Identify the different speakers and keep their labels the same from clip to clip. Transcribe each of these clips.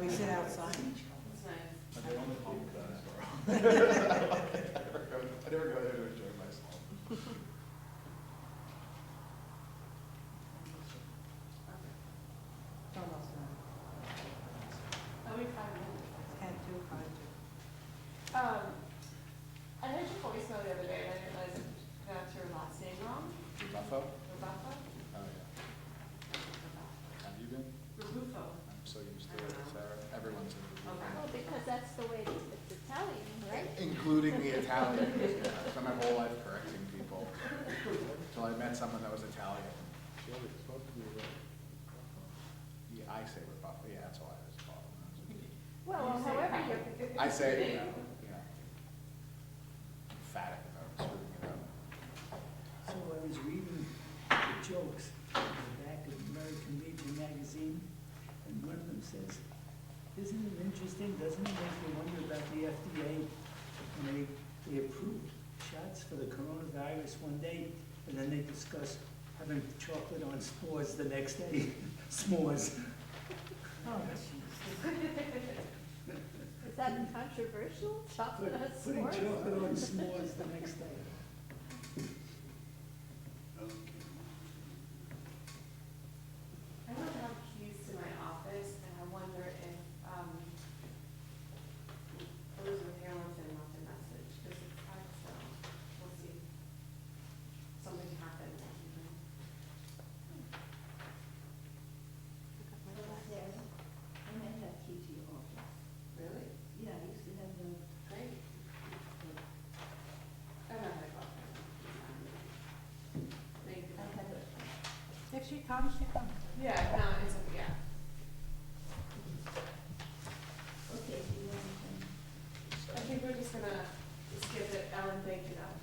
Speaker 1: we sit outside.
Speaker 2: That's nice.
Speaker 3: I don't want to do that. I never go there to enjoy myself.
Speaker 1: It's almost done.
Speaker 2: Are we five minutes?
Speaker 1: Ten to five to.
Speaker 2: Um, I heard your voicemail the other day, and I didn't realize I pronounced your last name wrong.
Speaker 3: Buffo?
Speaker 2: Rabuffa?
Speaker 3: Oh, yeah. Have you been?
Speaker 2: Rabufo.
Speaker 3: I'm so used to it, Sarah. Everyone's in the
Speaker 2: Okay.
Speaker 4: Well, because that's the way it's Italian, right?
Speaker 3: Including the Italians, yeah. I spent my whole life correcting people. Until I met someone that was Italian. Yeah, I say we're Buffalo, yeah, that's all I was called.
Speaker 4: Well, however, you're,
Speaker 3: I say, you know, you know, emphatic about screwing it up.
Speaker 5: So I was reading the jokes on the back of American Legion magazine, and one of them says, isn't it interesting, doesn't it make you wonder about the FDA? When they, they approved shots for the coronavirus one day, and then they discuss having chocolate on s'mores the next day, s'mores.
Speaker 1: Oh, jeez.
Speaker 4: is that controversial? Chocolate
Speaker 5: Put-
Speaker 4: on
Speaker 5: Putting
Speaker 4: s'mores?
Speaker 5: chocolate on s'mores the next day.
Speaker 2: I don't have keys to my office, and I wonder if, um, Elizabeth Hamilton left a message, because it's hard, so we'll see. Something happened.
Speaker 6: Sarah, I might have key to your office.
Speaker 2: Really?
Speaker 6: Yeah, I used to have the,
Speaker 2: Great. I don't know how to go. Thank
Speaker 6: I
Speaker 2: you.
Speaker 6: had a,
Speaker 1: If she comes, she comes.
Speaker 2: Yeah, no, it's, okay, yeah.
Speaker 6: okay, do you want to, um,
Speaker 2: I think we're just gonna skip it, Ellen, thank you though.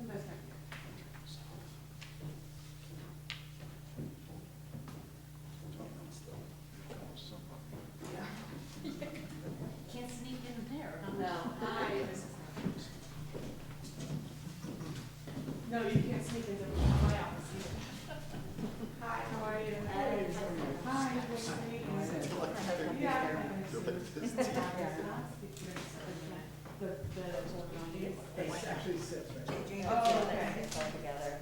Speaker 2: And that's fine.
Speaker 6: can't sneak in there, huh?
Speaker 2: No, I, this is not. No, you can't sneak into my office either. Hi, how are you? Hi, what's your name? Yeah. The, the.
Speaker 5: It actually says right there.
Speaker 2: Oh, okay.
Speaker 6: together.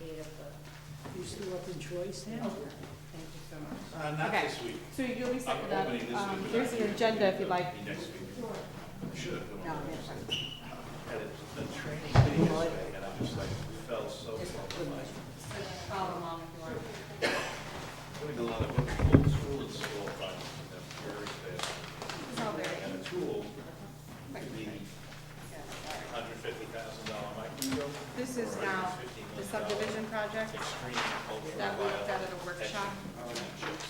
Speaker 5: You still up in Troy, Sam?
Speaker 7: Uh, not
Speaker 2: Okay.
Speaker 7: this week.
Speaker 2: So you'll be
Speaker 7: I'm
Speaker 2: setting up,
Speaker 7: opening this week.
Speaker 2: um,
Speaker 7: but
Speaker 2: there's
Speaker 7: I
Speaker 2: your
Speaker 7: think
Speaker 2: agenda if you'd
Speaker 7: it'll
Speaker 2: like.
Speaker 7: be Next week. Should have. put
Speaker 1: No,
Speaker 7: on
Speaker 1: never.
Speaker 7: the- Had it, the training day yesterday, and I just like fell so, like,
Speaker 2: Follow along if you want.
Speaker 7: putting a lot of old school and school projects in them very fast.
Speaker 2: It's all very,
Speaker 7: And a tool, the hundred fifty thousand dollar micro.
Speaker 2: This is
Speaker 7: or
Speaker 2: now
Speaker 7: $150
Speaker 2: the
Speaker 7: million
Speaker 2: subdivision project
Speaker 7: Extreme cultural.
Speaker 2: that we looked at at
Speaker 7: violence
Speaker 2: a workshop.
Speaker 7: chips.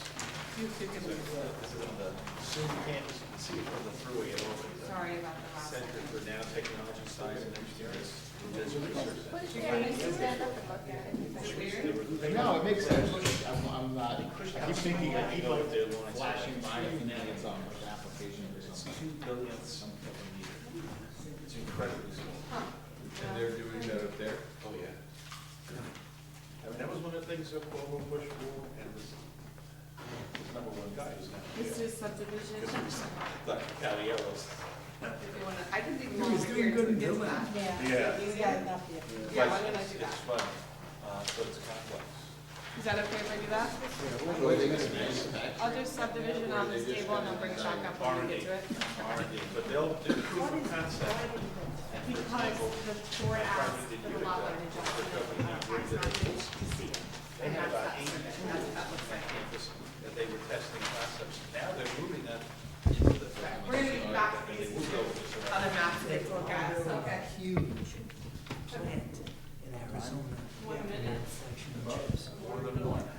Speaker 2: You two can,
Speaker 7: So, This is on the Zoom campus, you can see it from the thruway, it opens the
Speaker 2: sorry about the last.
Speaker 7: Center for Nanotechnology Science and Engineering. This research
Speaker 4: What is that? You stand up and look at it.
Speaker 2: Is it weird?
Speaker 3: No, it makes sense. I'm, I'm not, I keep thinking I keep like
Speaker 7: They want to-
Speaker 3: flashing by and thinking it's on like an application or
Speaker 7: It's
Speaker 3: something.
Speaker 7: two billionths something of a meter. It's incredibly small.
Speaker 2: And they're doing that up there?
Speaker 7: Oh, yeah. I mean, that was one of the things that Paul Bush wore and this, this number one guy who's now.
Speaker 2: This is subdivision.
Speaker 7: Because it was Dr. Caviello's.
Speaker 2: If you wanna- I can dig
Speaker 5: He
Speaker 2: longer
Speaker 5: was doing
Speaker 2: here
Speaker 5: good
Speaker 2: to
Speaker 5: in
Speaker 2: get to
Speaker 5: Dublin.
Speaker 2: that.
Speaker 1: Yeah.
Speaker 7: Yeah.
Speaker 1: He's got enough here.
Speaker 2: Yeah, why don't I
Speaker 7: It's-
Speaker 2: do that?
Speaker 7: It's fun, uh, so it's complex.
Speaker 2: Is that okay if I do that? I'll do subdivision on this table and I'll bring Chuck up when we get to it.
Speaker 7: R and D, but they'll do proof of concept. and for
Speaker 2: Because
Speaker 7: example,
Speaker 2: the board asked for the lot line adjustment on tax map to see.
Speaker 7: They
Speaker 2: And that's
Speaker 7: had about
Speaker 2: that
Speaker 7: eight
Speaker 2: section, that's what that looks
Speaker 7: campus that they were testing concepts. Now they're moving